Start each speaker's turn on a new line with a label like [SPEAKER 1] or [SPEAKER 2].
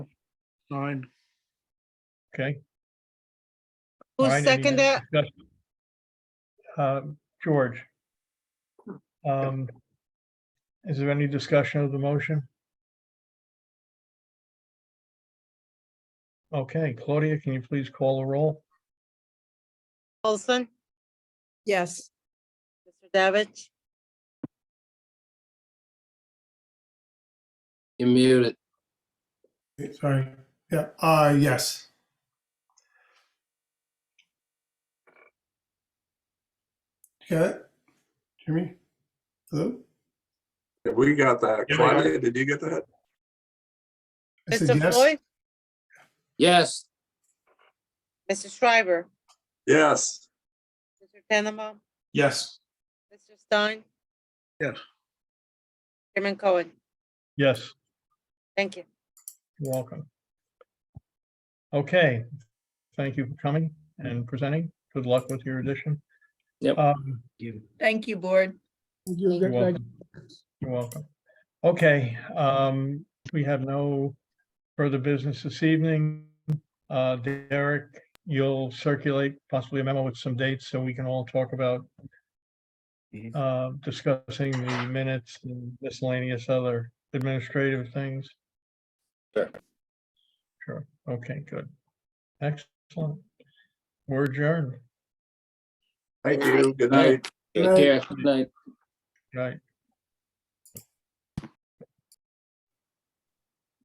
[SPEAKER 1] Nine.
[SPEAKER 2] okay?
[SPEAKER 3] Who
[SPEAKER 2] All right, any
[SPEAKER 3] seconded
[SPEAKER 2] other
[SPEAKER 3] it?
[SPEAKER 2] discussion? Um, George. Um, Is there any discussion of the motion? Okay, Claudia, can you please call the roll?
[SPEAKER 3] Olson,
[SPEAKER 4] yes,
[SPEAKER 3] Mr. Davich,
[SPEAKER 5] You're muted.
[SPEAKER 6] Sorry. Yeah, uh, yes. You got it? Hear me? Hello?
[SPEAKER 7] Yeah, We got that.
[SPEAKER 1] Yeah, we got it.
[SPEAKER 7] Claudia, did you get that?
[SPEAKER 6] I said
[SPEAKER 3] Mr.
[SPEAKER 6] yes.
[SPEAKER 3] Floyd,
[SPEAKER 5] Yes,
[SPEAKER 3] Mr. Schreiber,
[SPEAKER 7] Yes.
[SPEAKER 3] Mr. Tenema,
[SPEAKER 6] Yes.
[SPEAKER 3] Mr. Stein.
[SPEAKER 1] Yes.
[SPEAKER 3] Chairman Cohen,
[SPEAKER 2] Yes,
[SPEAKER 3] thank you.
[SPEAKER 2] you're welcome. Okay, thank you for coming and presenting. Good luck with your addition.
[SPEAKER 5] Yep.
[SPEAKER 2] Um,
[SPEAKER 4] thank you, board.
[SPEAKER 2] You're welcome. You're welcome. Okay, um, we have no further business this evening. Uh, Derek, you'll circulate possibly a memo with some dates so we can all talk about
[SPEAKER 4] Mm-hmm.
[SPEAKER 5] Mhm.
[SPEAKER 2] uh, discussing the minutes and miscellaneous other administrative things.
[SPEAKER 5] Sure.
[SPEAKER 2] Sure, okay, good. Excellent. We're adjourned,
[SPEAKER 7] Thank you. Good night.
[SPEAKER 5] take care. Good night.
[SPEAKER 2] right?